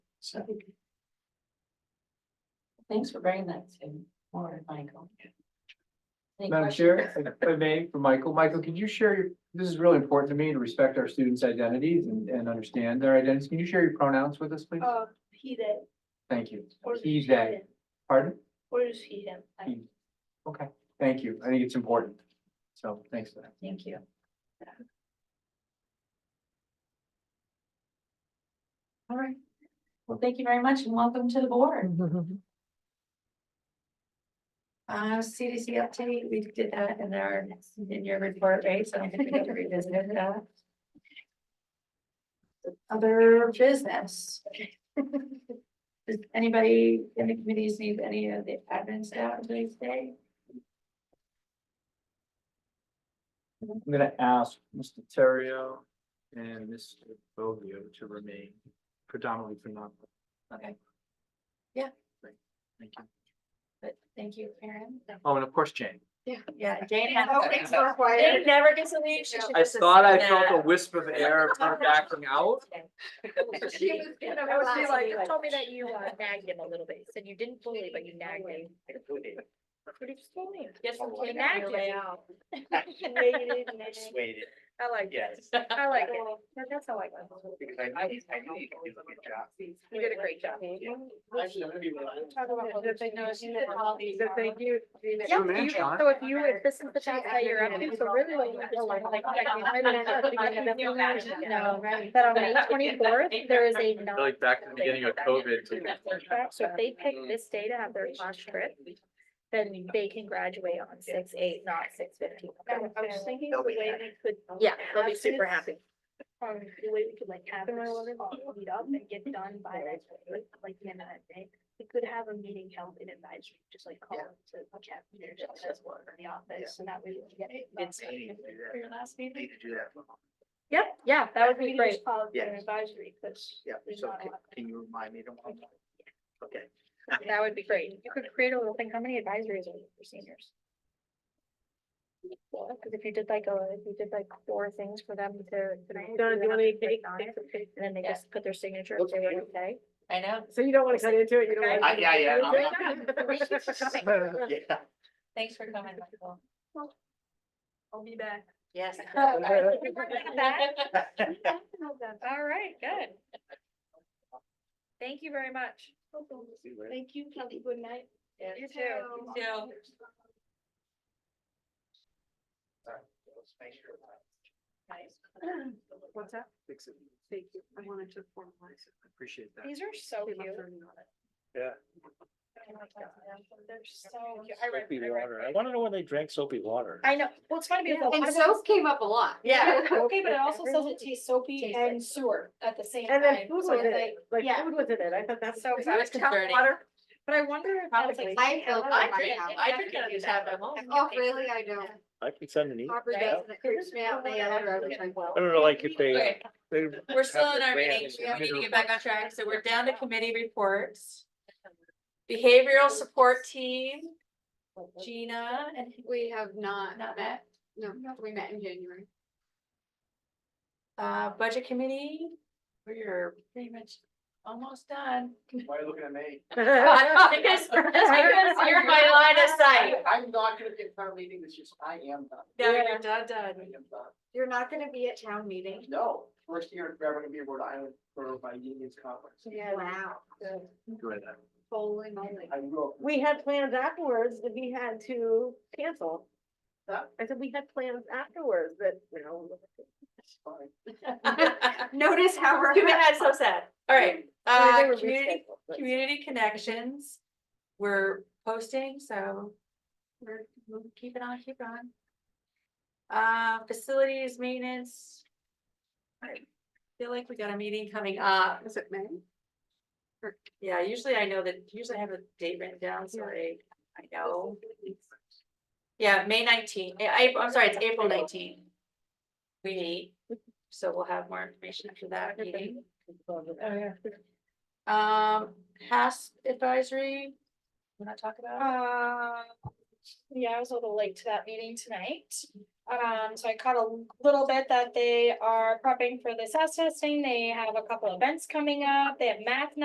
So. Thanks for bringing that to Warren, Michael. Any Madam Chair, if I may, for Michael, Michael, could you share, your? this is really important to me to respect our students' identities and, and understand their identities. Can you share your pronouns with us, please? Uh, he that, Thank you. or is He, he they, him? pardon? Or is he him? He. Okay, thank you. I think it's important. So thanks for that. Thank you. All right. Well, thank you very much and welcome to the board. Uh, CDC update, we did that in our, in your report, right? So I don't think we have to revisit it. uh. Other business. Does anybody in the committees need any of the admin staff for today's day? I'm gonna ask Mr. Terrio and Mr. Bovio to remain predominantly for non. Okay. Yeah. Thank you. But thank you, Karen. Oh, and of course, Jane. Yeah, Jane. had- Jane Required. never gets to leave. She should I just thought I sit felt a there. whisper of air of her backing out. She was gonna I was relax and like- be you like, told me that you uh, nagged him a little bit. You said you didn't bully, but you nagged him. Pretty funny. Get Oh, some You cake out your nagged him. way out. Negative, negative. persuaded, I like that. yes. I like it. That- That's how I like it. Because I, I know you did a good job. You did a great job. Actually, I'm gonna be real. Talk about what Yeah, the big no, news she is. did all these Yeah, articles. you- Good man, John. So if you, if this is the task that you're up to, so really what you feel like. like, like, you might not have to be in the middle of the No, night. right. That on May twenty-fourth, there is a non. Like back to the beginning of COVID. So if they pick this day to have their class trip, then they can graduate on six, eight, not six fifteen. I was I was thinking the way we could. Yeah, they'll be super Absence. happy. um, the way we could like have our eleven meet up and get done by that, like, like the end of that day. We could have a meeting held in advisory, just like call it to the chapter, just as well in the office, and that way we can get it. done. It's- For your last Need meeting. to do that. Yep, yeah, that would We be could great. just Call it an Yes. advisory, because. Yeah, There's so not a can- lot. can you remind me tomorrow? Okay. That would be great. You could create a little thing. How many advisories are there for seniors? Because if you did like a, if you did like four things for them to. to Donna, do you have want to me to click take, on take it, some pictures? And then they Yeah. just put their signature if they were okay. I know. So you don't want to cut into it, you don't I, want. yeah, yeah. I'm not- yeah. Thanks for coming, Michael. I'll be back. Yes. All right, good. Thank you very much. Thank you, Kelly, good night. You too. too. What's that? Fix it. Thank you. I wanted to formalize it. Appreciate that. These are so They cute. Oh left her in on it. They're so cute. I read, Soapy I water. I read. wanna know when they drank soapy water. I know. Well, it's funny because. a lot of- came up a lot. Yeah. Okay, but it also says it tastes soapy Tastes like- and sewer at the same time. And then food so was it's in it, like- like yeah. food was in it. I thought that's. So I was concerning. water. But I wonder if that's Probably. like. I feel- I might drink- have- I have drink to it do just that. have at home. Oh, really? I know. I can send an email. Harper doesn't, it creeps me out, and the other, I was like, well. I don't know, like if they. Okay, We're still in our meeting. We need to get back on track. So we're down to committee reports. Behavioral support team, Gina and We have not Not met, no, we met in January. uh budget committee. We're pretty much almost done. Why are you looking at me? I guess I guess You're my line of sight. I'm not gonna get town meeting this year, so I am done. No, you're done, I done. am done. You're not gonna be at town meeting? No, first year, I'm gonna be in Rhode Island for my unions conference. Yeah. Wow, Enjoy that. holy moly. I will. We had plans afterwards that we had to cancel. I said we had plans afterwards that, you know. It's fine. Notice how we're. You had so sad. All right, they uh were community, rescheduled, but- community connections. We're posting, so we're we'll keep it on, keep it on. Uh, facilities maintenance. I feel like we got a meeting coming up. Is it May? Yeah, usually I know that, usually I have a date written down, sorry, I know. Yeah, May nineteenth. I, I'm sorry, it's April nineteenth. We meet, so we'll have more information after that meeting. Oh, Um, HASP advisory, wanna talk about? it? Uh, yeah, I was a little late to that meeting tonight. Um, so I caught a little bit that they are prepping for the SAS testing. They have a couple events coming up. They have math